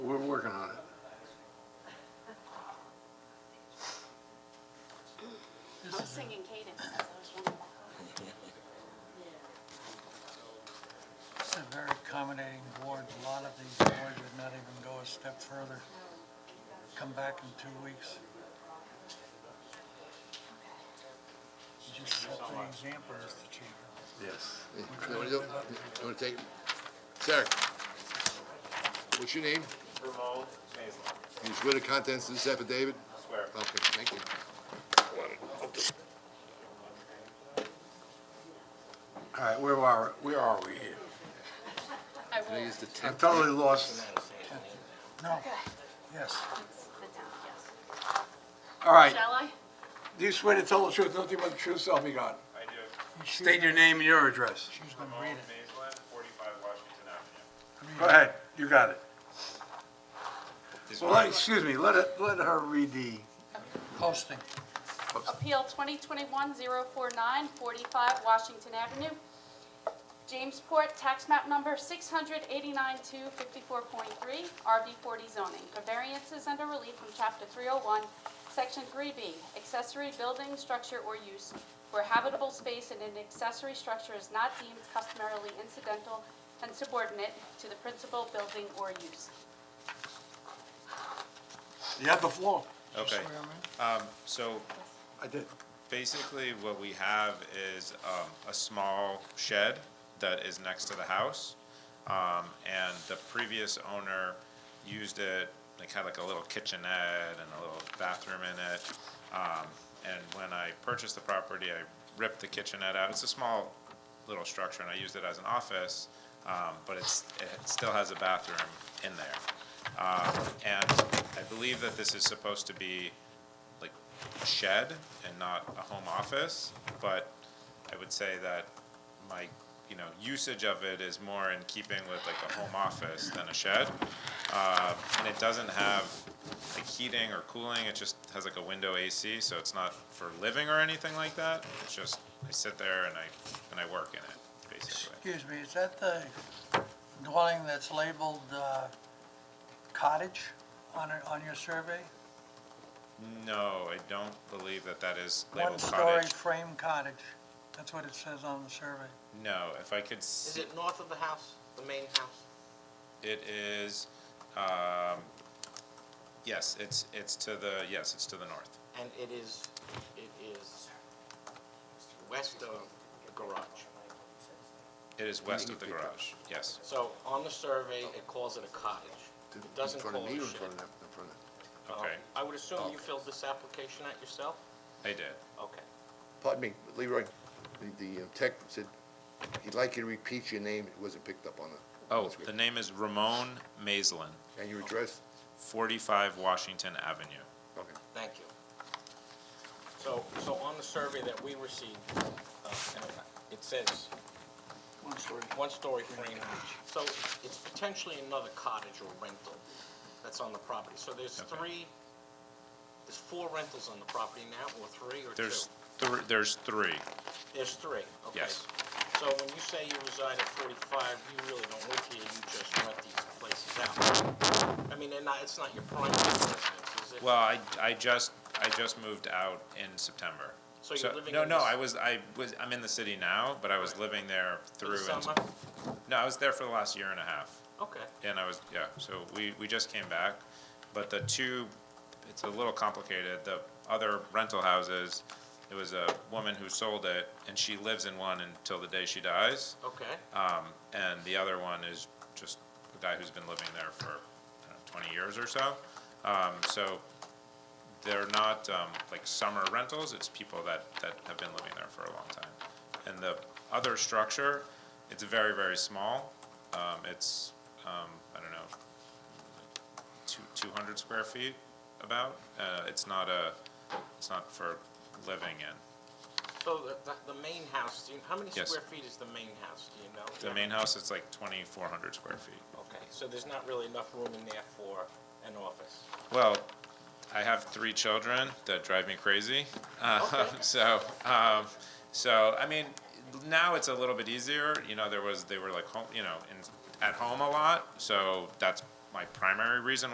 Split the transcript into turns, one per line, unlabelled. singing cadence, that's what I was wondering.
It's a very accommodating board. A lot of these boards would not even go a step further. Come back in two weeks. Just set the example, Mr. Chairman.
Yes.
You wanna do- you wanna take, sir? What's your name?
Ramon Mazel,
You swear the contents of this affidavit?
swear.
Okay, thank you.
All right, where are, where are we here?
I will.
Here's the
I'm
tenth.
totally lost.
No,
Okay,
yes.
it's the town, yes.
All right,
Shall I?
do you swear to tell the truth, nothing but the truth, so help me God?
I do.
State your name and your address.
She's gonna
Ramon
read it.
Mazel, 45 Washington Avenue.
Go ahead, you got it. So, let- excuse me, let it, let her read the,
Posting.
Appeal 2021-049, 45 Washington Avenue, Jamesport, tax map number 689-254.3, RB40 zoning, for variances under relief from Chapter 301, Section 3B, accessory building, structure, or use where habitable space in an accessory structure is not deemed customarily incidental and subordinate to the principal building or use.
you have the floor.
Okay, um, so
I did.
basically what we have is, um, a small shed that is next to the house. Um, and the previous owner used it, like had like a little kitchenette and a little bathroom in it. Um, and when I purchased the property, I ripped the kitchenette out. It's a small little structure and I used it as an office, um, but it's, it still has a bathroom in there. Um, and I believe that this is supposed to be like a shed and not a home office, but I would say that my, you know, usage of it is more in keeping with like a home office than a shed. Uh, and it doesn't have like heating or cooling, it just has like a window AC, so it's not for living or anything like that. It's just, I sit there and I, and I work in it, basically.
Excuse me, is that the dwelling that's labeled uh, cottage on, it- on your survey?
No, I don't believe that that is labeled
One-story
cottage.
frame cottage. That's what it says on the survey.
No, if I could, s-
Is it north of the house, the main house?
it is, um, yes, it's, it's to the, yes, it's to the north.
And it is, it is west of the garage.
It is west of the garage, yes.
So on the survey, it calls it a cottage. It
In
doesn't
front
call
of me
it
or
a
in front of
shed.
them? In front of-
Um,
Okay,
I would assume you filled this application out yourself?
I did.
Okay.
Pardon me, Leroy, the, the uh, tech said he'd like you to repeat your name, it wasn't picked up on the,
Oh,
That's
the
good.
name is Ramon Mazlin,
and your address?
45 Washington Avenue.
Okay.
Thank you. So, so on the survey that we received, uh, and it says
One story.
one-story frame house. So it's potentially another cottage or rental that's on the property. So there's
Okay.
three, there's four rentals on the property now, or three or two?
There's, thr- there's three.
There's three, okay.
Yes.
So when you say you reside at 45, you really don't live here, you just rent these places out. I mean, they're not, it's not your primary residence, is it?
Well, I, I just, I just moved out in September.
So you're living
No,
in
no,
this-
I was, I was, I'm in the city now, but I was living there
For
through.
the
in-
summer?
No, I was there for the last year and a half.
Okay,
And I was, yeah, so we, we just came back, but the two, it's a little complicated, the other rental houses, it was a woman who sold it, and she lives in one until the day she dies.
okay.
Um, and the other one is just a guy who's been living there for, I don't know, twenty years or so. Um, so they're not, um, like summer rentals, it's people that, that have been living there for a long time. And the other structure, it's very, very small. Um, it's, um, I don't know, two, two hundred square feet about. Uh, it's not a, it's not for living in.
So Oh, the, the, the main house, do you, how many
Yes.
square feet is the main house, do you know?
The main house, it's like twenty-four hundred square feet.
Okay, so there's not really enough room in there for an office.
Well, I have three children that drive me crazy. Uh,
Okay.
So, um, so I mean, now it's a little bit easier. You know, there was they were like home, you know, in, at home a lot. So that's my primary reason